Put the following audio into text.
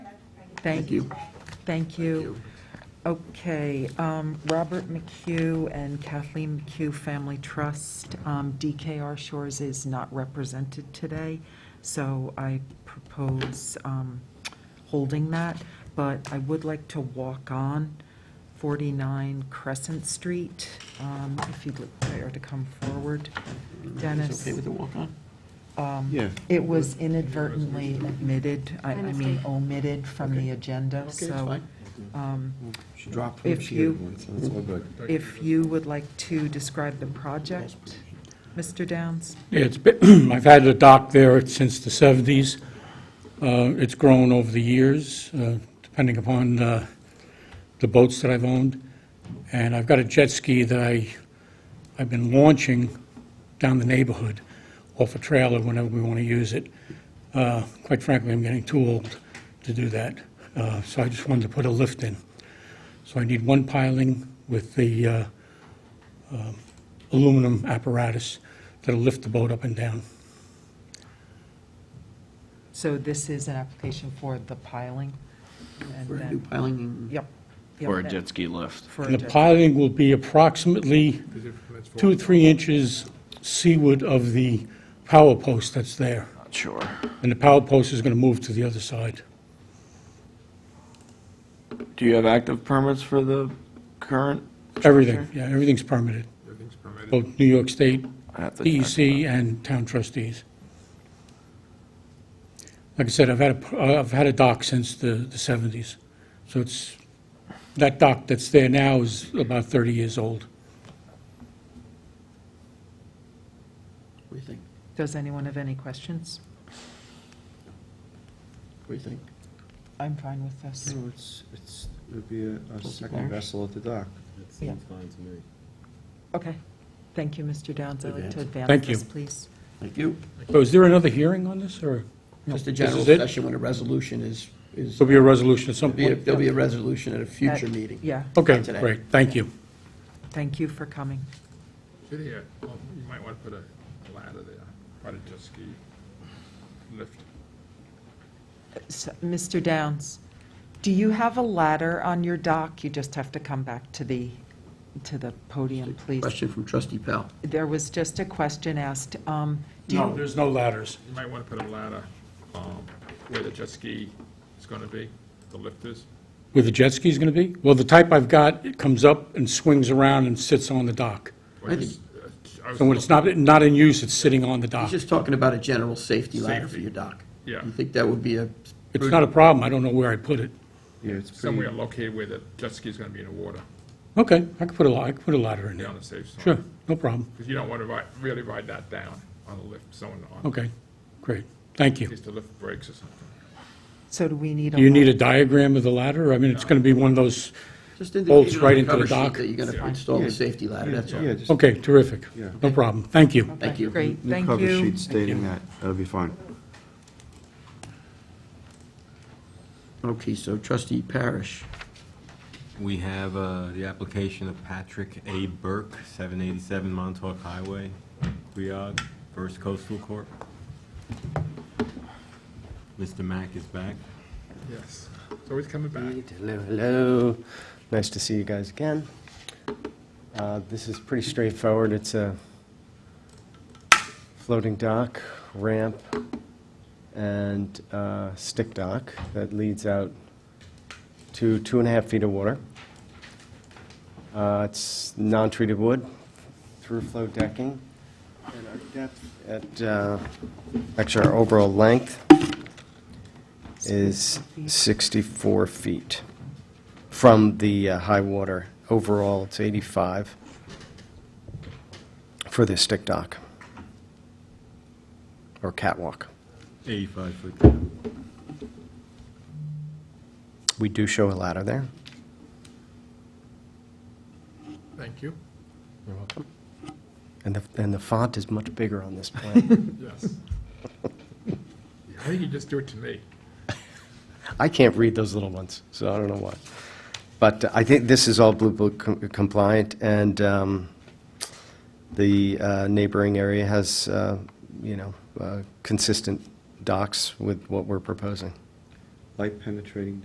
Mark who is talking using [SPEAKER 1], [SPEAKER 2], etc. [SPEAKER 1] Thank you. Thank you. Okay, um, Robert McHugh and Kathleen McHugh Family Trust, um, DKR Shores is not represented today, so I propose um, holding that, but I would like to walk on 49 Crescent Street, um, if you'd like Claire to come forward. Dennis?
[SPEAKER 2] okay with the walk-on?
[SPEAKER 1] um,
[SPEAKER 2] Yeah.
[SPEAKER 1] It was inadvertently omitted, I I mean omitted from the agenda,
[SPEAKER 2] Okay, it's
[SPEAKER 1] so
[SPEAKER 2] fine.
[SPEAKER 1] um,
[SPEAKER 2] She dropped
[SPEAKER 1] if you-
[SPEAKER 2] It's all good.
[SPEAKER 1] if you would like to describe the project, Mr. Downs?
[SPEAKER 3] It's, been- I've had a dock there since the 70s. Uh, It's grown over the years, uh, depending upon uh, the boats that I've owned. And I've got a jet ski that I, I've been launching down the neighborhood off a trailer whenever we want to use it. Uh, Quite frankly, I'm getting too old to do that, Uh, so I just wanted to put a lift in. So I need one piling with the uh, aluminum apparatus that'll lift the boat up and down.
[SPEAKER 1] So this is an application for the piling? and
[SPEAKER 2] For a new
[SPEAKER 1] then-
[SPEAKER 2] piling,
[SPEAKER 1] Yep. yep,
[SPEAKER 4] Or a
[SPEAKER 1] that-
[SPEAKER 4] jet ski lift.
[SPEAKER 1] For a
[SPEAKER 3] And the
[SPEAKER 1] jet-
[SPEAKER 3] piling will be approximately two or three inches seaward of the power post that's there.
[SPEAKER 4] Not sure.
[SPEAKER 3] And the power post is going to move to the other side.
[SPEAKER 4] Do you have active permits for the current?
[SPEAKER 3] Everything, yeah, everything's permitted.
[SPEAKER 5] Everything's permitted.
[SPEAKER 3] Both New York State,
[SPEAKER 4] I have to
[SPEAKER 2] E-
[SPEAKER 4] check.
[SPEAKER 3] DEC, and town trustees. Like I said, I've had, a- uh, I've had a dock since the the 70s. So it's, that dock that's there now is about 30 years old.
[SPEAKER 2] what do you think?
[SPEAKER 1] Does anyone have any questions?
[SPEAKER 2] What do you think?
[SPEAKER 1] I'm fine with this.
[SPEAKER 6] No, it's, it's, it would be a- a
[SPEAKER 2] bars?
[SPEAKER 6] second vessel at the dock.
[SPEAKER 7] That
[SPEAKER 1] Yeah.
[SPEAKER 7] seems fine to me.
[SPEAKER 1] Okay. Thank you, Mr. Downs. I'd like to advance
[SPEAKER 3] Thank you.
[SPEAKER 1] this, please.
[SPEAKER 2] Thank you.
[SPEAKER 3] So is there another hearing on this, or?
[SPEAKER 2] Just a
[SPEAKER 3] This
[SPEAKER 2] general
[SPEAKER 3] is it?
[SPEAKER 2] session when a resolution is, is,
[SPEAKER 3] There'll be a resolution at some
[SPEAKER 2] there'll be a-
[SPEAKER 3] point?
[SPEAKER 2] there'll be a resolution at a future
[SPEAKER 1] Uh,
[SPEAKER 2] meeting.
[SPEAKER 1] Yeah,
[SPEAKER 3] Okay,
[SPEAKER 2] Not today.
[SPEAKER 3] great, thank you.
[SPEAKER 1] thank you for coming.
[SPEAKER 5] Should he, uh, well, you might want to put a ladder there, probably just ski lift.
[SPEAKER 1] S- Mr. Downs, do you have a ladder on your dock? You just have to come back to the, to the podium, please.
[SPEAKER 2] Question from trustee Pal.
[SPEAKER 1] There was just a question asked. um, do you-
[SPEAKER 3] There's no ladders.
[SPEAKER 5] You might want to put a ladder um, where the jet ski is going to be, the lift is.
[SPEAKER 3] Where the jet ski's going to be? Well, the type I've got, it comes up and swings around and sits on the dock.
[SPEAKER 5] Or
[SPEAKER 2] I
[SPEAKER 5] just, uh, I was-
[SPEAKER 3] So when it's not, not in use, it's sitting on the
[SPEAKER 2] He's
[SPEAKER 3] dock.
[SPEAKER 2] just talking about a general safety ladder for your dock.
[SPEAKER 5] Yeah.
[SPEAKER 2] You think that would be a,
[SPEAKER 3] It's not a problem, I don't know where I put it.
[SPEAKER 6] Yeah, it's pretty,
[SPEAKER 5] Somewhere located where the jet ski is going to be in the water,
[SPEAKER 3] Okay, I could put a, la- I could put a ladder in
[SPEAKER 5] be
[SPEAKER 3] there.
[SPEAKER 5] on the safe side.
[SPEAKER 3] Sure, no problem.
[SPEAKER 5] Because you don't want to ride, really ride that down on the lift, someone on,
[SPEAKER 3] Okay, great, thank
[SPEAKER 5] in
[SPEAKER 3] you.
[SPEAKER 5] case the lift breaks or something.
[SPEAKER 1] So do we need a?
[SPEAKER 3] Do you need a
[SPEAKER 1] ladder?
[SPEAKER 3] diagram of the ladder? I mean, it's going to be one of those,
[SPEAKER 2] just
[SPEAKER 3] Bolts
[SPEAKER 2] indicate
[SPEAKER 3] right
[SPEAKER 2] on the
[SPEAKER 3] into the
[SPEAKER 2] cover sheet
[SPEAKER 3] dock.
[SPEAKER 2] that you're going to install
[SPEAKER 6] Yeah.
[SPEAKER 2] the safety ladder, that's all.
[SPEAKER 6] yeah, just
[SPEAKER 3] okay, terrific.
[SPEAKER 6] Yeah.
[SPEAKER 3] No problem, thank you.
[SPEAKER 2] Thank you.
[SPEAKER 1] Great,
[SPEAKER 6] new
[SPEAKER 1] thank
[SPEAKER 6] cover
[SPEAKER 1] you.
[SPEAKER 6] sheet stating that, that'll be fine.
[SPEAKER 2] Okay, so trustee Parish.
[SPEAKER 7] We have uh, the application of Patrick A. Burke, 787 Montauk Highway, Briog, First Coastal Corp. Mr. Mack is back.
[SPEAKER 5] Yes, it's always coming back.
[SPEAKER 8] Hello, hello. Nice to see you guys again. Uh, This is pretty straightforward. It's a floating dock, ramp, and uh, stick dock that leads out to two and a half feet of water. Uh, It's non-treated wood, through flow decking, and our depth at, uh, actually, our overall length is 64 feet from the uh, high water. Overall, it's 85 for the stick dock or catwalk.
[SPEAKER 7] 85 foot down.
[SPEAKER 8] We do show a ladder there.
[SPEAKER 5] Thank you.
[SPEAKER 8] You're welcome. And the, and the font is much bigger on this plan.
[SPEAKER 5] Yes. I think you just do it to me.
[SPEAKER 8] I can't read those little ones, so I don't know why. But uh, I think this is all Blue Book com- compliant, and um, the uh, neighboring area has, uh, you know, uh, consistent docks with what we're proposing.
[SPEAKER 6] Light penetrating